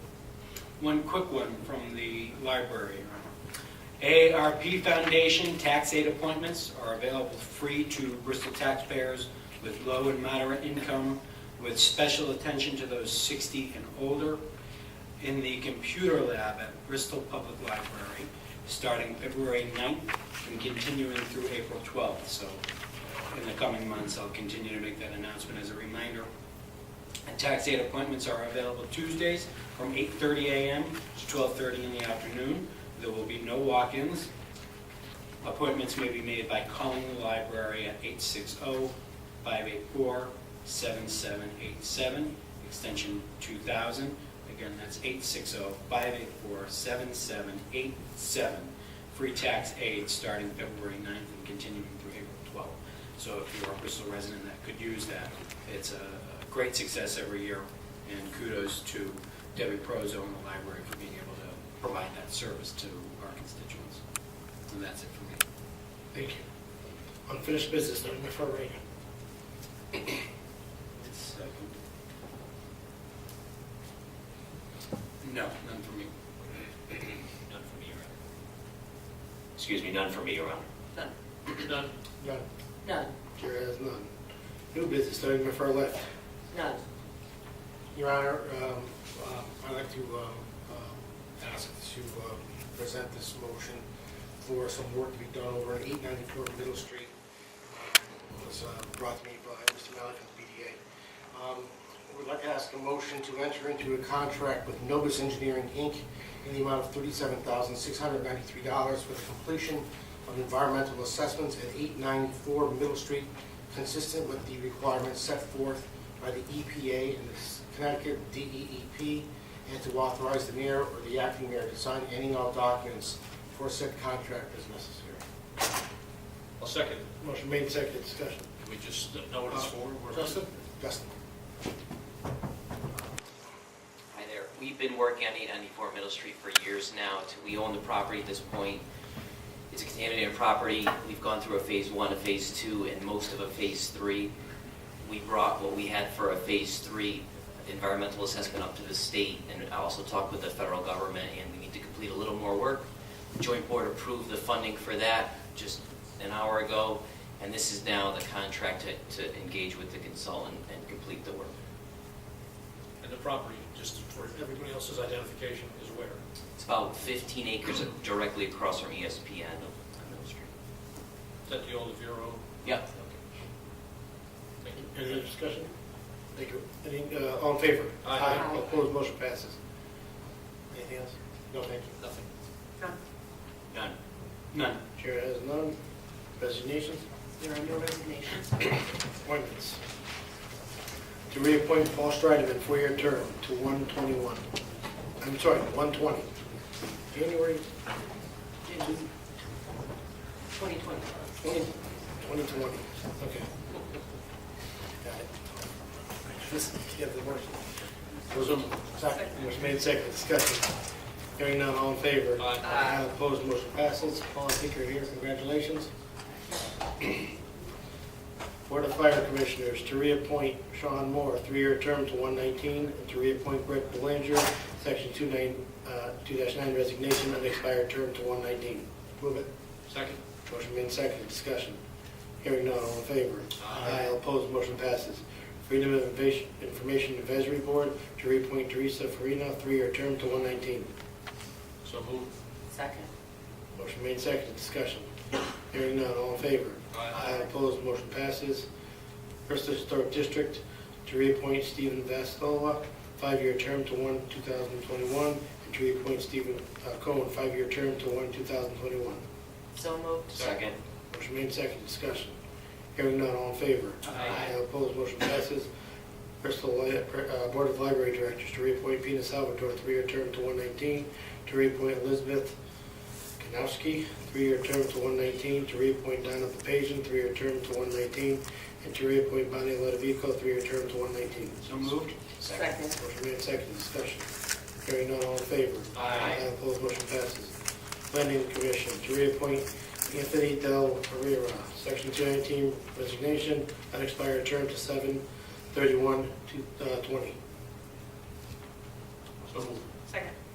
One quick one from the library. ARP Foundation tax aid appointments are available free to Bristol taxpayers with low and moderate income, with special attention to those 60 and older, in the computer lab at Bristol Public Library, starting February 9th and continuing through April 12th. So in the coming months, I'll continue to make that announcement as a reminder. And tax aid appointments are available Tuesdays from 8:30 a.m. to 12:30 in the afternoon. There will be no walk-ins. Appointments may be made by calling the library at oh, 860-584-7787, extension 2000. Again, that's oh, 860-584-7787. Free tax aid starting February 9th and continuing through April 12th. So if you're a Bristol resident that could use that, it's a a great success every year, and kudos to Debbie Prozo and the library for being able to provide that service to our constituents. And that's it for me. Thank you. Unfinished business, nothing before Reagan. It's, uh, No, none for me. None for me, Your Honor. Excuse me, none for me, Your Honor. None. None. None, Chair has none. New business, starting my far left. none. Your Honor, um, uh, I'd like to um, um, ask to uh, present this motion for some work to be done over at 894 Middle Street. It was uh, brought to me by Mr. Malik of the BDA. Um, We'd like to ask a motion to enter into a contract with Novus Engineering, Inc. in the amount of $37,693 for the completion of environmental assessments at 894 Middle Street, consistent with the requirements set forth by the EPA and the Connecticut DEEP, and to authorize the mayor or the acting mayor to sign any and all documents for said contract as necessary. I'll second. it. Motion made, seconded, discussion. Can we just know what it's for? We're- Justin? Justin. Hi there. We've been working on 894 Middle Street for years now. We own the property at this point. It's a contaminated property. We've gone through a Phase 1, a Phase 2, and most of a Phase 3. We brought what we had for a Phase 3 environmental assessment up to the state, and I also talked with the federal government, and we need to complete a little more work. The Joint Board approved the funding for that just an hour ago, and this is now the contract to- to engage with the consultant and complete the work. And the property, just for everybody else's identification, is where? It's about 15 acres directly across from E ESPN on Middle Street. Is that the old Vero? Yep. Thank you. Any other discussion? Thank you. Any, uh, all in favor? Aye. Aye. Opposed, motion passes. Anything else? No, thank you. Nothing. None. None. None. Chair has none. Resignations, There are no resignations. appointments. To reappoint Paul Strideman, four-year term to 121. I'm sorry, 120. January June 2020. 20, 2020. Okay. Got it. Just give the motion. Those are, second, motion made second, discussion. Hearing none, all in favor? Aye. Aye. Opposed, motion passes. Paul, I think you're here, congratulations. Board of Fire Commissioners, to reappoint Sean Moore, three-year term to 119, and to reappoint Brett Belanger, section 29, uh, 2-9 resignation, unexpired term to 119. Move it. Second? Motion made second, discussion. Hearing none, all in favor? Aye. All Opposed, motion passes. Freedom of Inva- Information Advisory Board to reappoint Teresa Farina, three-year term to 119. So moved. Second. Motion made second, discussion. Hearing none, all in favor? Aye. All Opposed, motion passes. Bristol Historic District to reappoint Stephen Vastola, five-year term to 1, 2021, and to reappoint Stephen uh, Cohen, five-year term to 1, 2021. So moved. Second. Motion made second, discussion. Hearing none, all in favor? Aye. Opposed, motion passes. Bristol Li- uh, Board of Library Directors to reappoint Pina Salvatore, three-year term to 119, to reappoint Elizabeth Kanowski, three-year term to 119, to reappoint Donna Papazian, three-year term to 119, and to reappoint Bonnie Ludovico, three-year term to 119. So moved? Second. Motion made second, discussion. Hearing none, all in favor? Aye. Opposed, motion passes. Planning Commission, to reappoint Anthony Del Pereira, Section 219 resignation, unexpired term to 7/31/20. So moved. Second.